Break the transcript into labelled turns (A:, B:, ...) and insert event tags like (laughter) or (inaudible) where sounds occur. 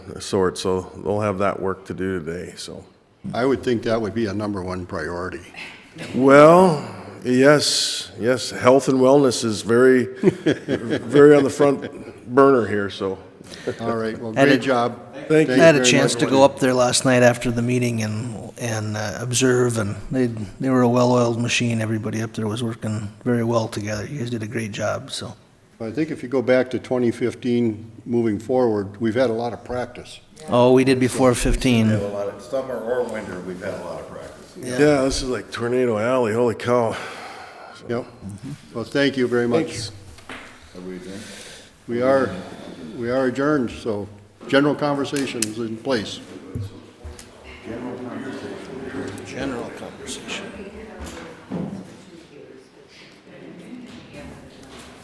A: sort, so they'll have that work to do today, so.
B: I would think that would be a number one
A: (laughs)
B: priority.
A: Well, yes, yes, health and wellness is very, very on the front burner here, so.
B: All right, well,
C: Had a-
B: great job.
A: Thank you.
C: I had a
B: very
C: chance
B: much.
C: to go up there last night after the meeting and, and uh, observe, and they, they were a well-oiled machine. Everybody up there was working very well together. You guys did a great job, so.
B: I think if you go back to 2015, moving forward, we've had a lot of practice.
C: Oh, we did before 15.
D: A lot of, summer or winter, we've had a lot of practice.
A: Yeah, this is like Tornado Alley, holy cow.
B: Yep.
A: mm-hmm.
B: Well, thank you very much.
D: Have we done?
B: We are, we are adjourned, so general conversation is in place.